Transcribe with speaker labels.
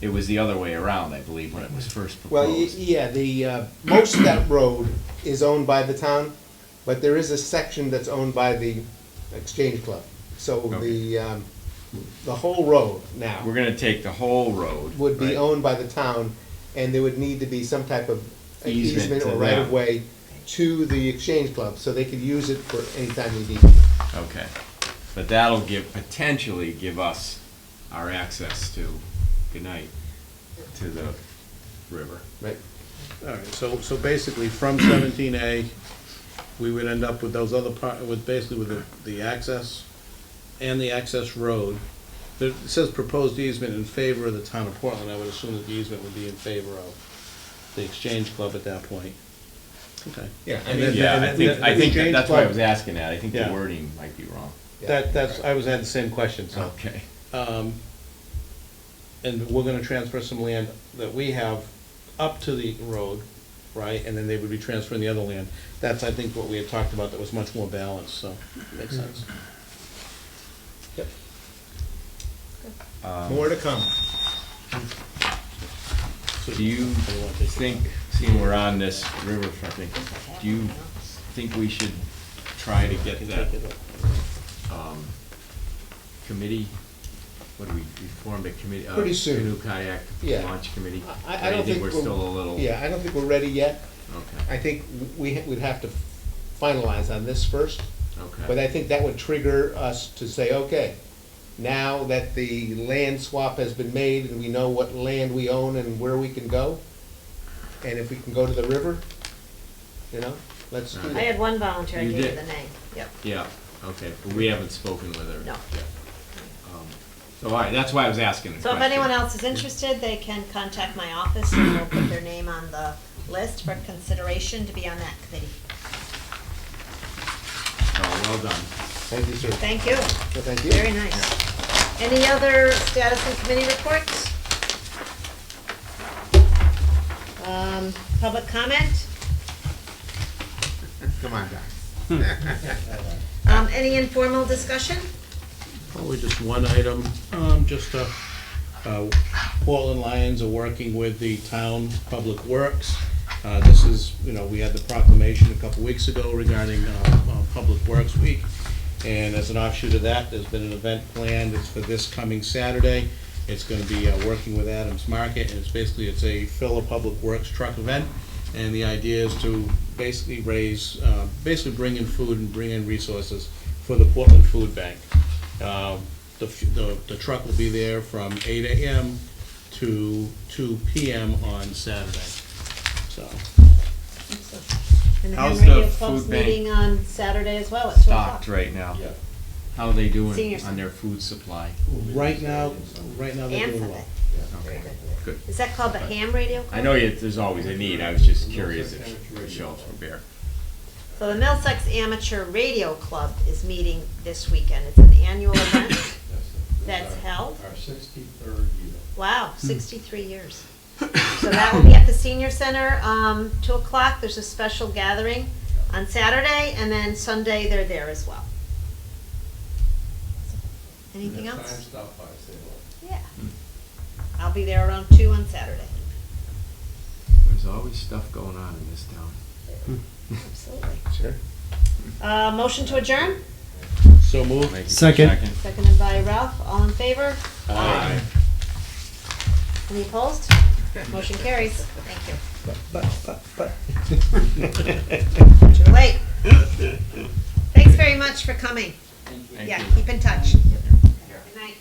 Speaker 1: It was the other way around, I believe, when it was first
Speaker 2: Well, y-
Speaker 1: proposed.
Speaker 2: yeah, the, uh, most of that road is owned by the town, but there is a section that's owned by the Exchange Club. So the, um, the whole road
Speaker 1: We're
Speaker 2: now
Speaker 1: gonna take the whole road.
Speaker 2: would be
Speaker 1: right?
Speaker 2: owned by the town, and there would need to be some type of
Speaker 1: Easement
Speaker 2: easement
Speaker 1: to
Speaker 2: or
Speaker 1: them.
Speaker 2: right of way to the Exchange Club, so they could use it for any time they need. it.
Speaker 1: Okay, but that'll give, potentially give us our access to, good night, to the river.
Speaker 2: Right,
Speaker 3: All right, so, so basically, from seventeen A, we would end up with those other part, with basically with the, the access and the access road. There- It says proposed easement in favor of the town of Portland, I would assume that the easement would be in favor of the Exchange Club at that point. Okay.
Speaker 2: Yeah, I
Speaker 3: And
Speaker 2: mean-
Speaker 3: then-
Speaker 1: Yeah, I
Speaker 3: and
Speaker 1: think,
Speaker 3: then
Speaker 1: I think
Speaker 3: the
Speaker 1: that-
Speaker 3: Exchange
Speaker 1: that's why I
Speaker 3: Club-
Speaker 1: was asking that, I think the
Speaker 3: Yeah.
Speaker 1: wording might be wrong.
Speaker 3: That, that's, I was had the same question, so.
Speaker 1: Okay,
Speaker 3: Um, And we're gonna transfer some land that we have up to the road, right, and then they would be transferring the other land. That's, I think, what we had talked about that was much more balanced, so,
Speaker 1: Mm-hmm.
Speaker 3: makes sense.
Speaker 2: yep. More to come.
Speaker 3: Um, So-
Speaker 1: do you think, seeing we're on this riverfront thing, do you think we should try to get
Speaker 3: Can
Speaker 1: that
Speaker 3: take it up.
Speaker 1: committee? What do we, we formed a committee? uh,
Speaker 2: Pretty soon.
Speaker 1: Canoe kayak
Speaker 2: Yeah.
Speaker 1: launch committee?
Speaker 2: I, I
Speaker 1: Or
Speaker 2: don't
Speaker 1: do you
Speaker 2: think we're.
Speaker 1: we're still a little?
Speaker 2: Yeah, I don't think we're ready yet.
Speaker 1: Okay,
Speaker 2: I think we, we'd have to finalize on this first,
Speaker 1: okay.
Speaker 2: but I think that would trigger us to say, okay, now that the land swap has been made and we know what land we own and where we can go, and if we can go to the river, you know, let's do
Speaker 1: Right.
Speaker 4: I
Speaker 2: that.
Speaker 4: had one volunteer, I
Speaker 1: You
Speaker 4: gave you
Speaker 1: did.
Speaker 4: the name, yep,
Speaker 1: Yeah, okay, but we haven't spoken with her. Um,
Speaker 4: no.
Speaker 1: So, all right, that's why I was asking the
Speaker 4: So if
Speaker 1: question.
Speaker 4: anyone else is interested, they can contact my office and we'll put their name on the list for consideration to be on that committee.
Speaker 1: Oh, well done.
Speaker 2: Thank you, sir. Well,
Speaker 4: Thank you,
Speaker 2: Thank
Speaker 4: very
Speaker 2: you.
Speaker 4: nice. Any other status and committee reports? Um, public comment?
Speaker 2: Come on, Doc.
Speaker 4: Um, any informal discussion?
Speaker 3: Probably just one item, um, just, uh, uh, Portland Lions are working with the town Public Works. Uh, this is, you know, we had the proclamation a couple weeks ago regarding, uh, uh, Public Works Week. And as an offshoot of that, there's been an event planned, it's for this coming Saturday. It's gonna be, uh, working with Adams Market, and it's basically, it's a fill a Public Works truck event. And the idea is to basically raise, uh, basically bring in food and bring in resources for the Portland Food Bank. Um, The, f- the, the truck will be there from eight AM to two PM on Saturday, so.
Speaker 4: And the
Speaker 1: How's
Speaker 4: Ham Radio
Speaker 1: the
Speaker 4: Club's
Speaker 1: food bank
Speaker 4: meeting on Saturday as well at two o'clock.
Speaker 1: Stocked right now. How are they doing
Speaker 4: Seniors.
Speaker 1: on their food supply?
Speaker 3: Right now, right now they're doing well.
Speaker 1: Okay, good.
Speaker 4: Is that called the Ham Radio Club?
Speaker 1: I know you, there's always a need, I was just curious if the shelves were bare.
Speaker 4: So the Middlesex Amateur Radio Club is meeting this weekend. It's an annual event. That's held?
Speaker 5: Our sixty-third year.
Speaker 4: Wow,
Speaker 5: Hmm.
Speaker 4: sixty-three years. So that will be at the senior center, um, two o'clock. There's a special gathering on Saturday and then Sunday they're there as well. Anything
Speaker 5: Next Time
Speaker 4: else?
Speaker 5: stop by, say hello. Hmm.
Speaker 4: Yeah. I'll be there around two on Saturday.
Speaker 1: There's always stuff going on in this town.
Speaker 4: Absolutely.
Speaker 2: Sure.
Speaker 4: Uh, motion to adjourn?
Speaker 3: So moved.
Speaker 1: Second.
Speaker 4: Seconded by Ralph. All in favor?
Speaker 3: Aye.
Speaker 4: Any opposed? Motion carries. Thank you. Too late. Thanks very much for coming. Yeah, keep in touch. Good night.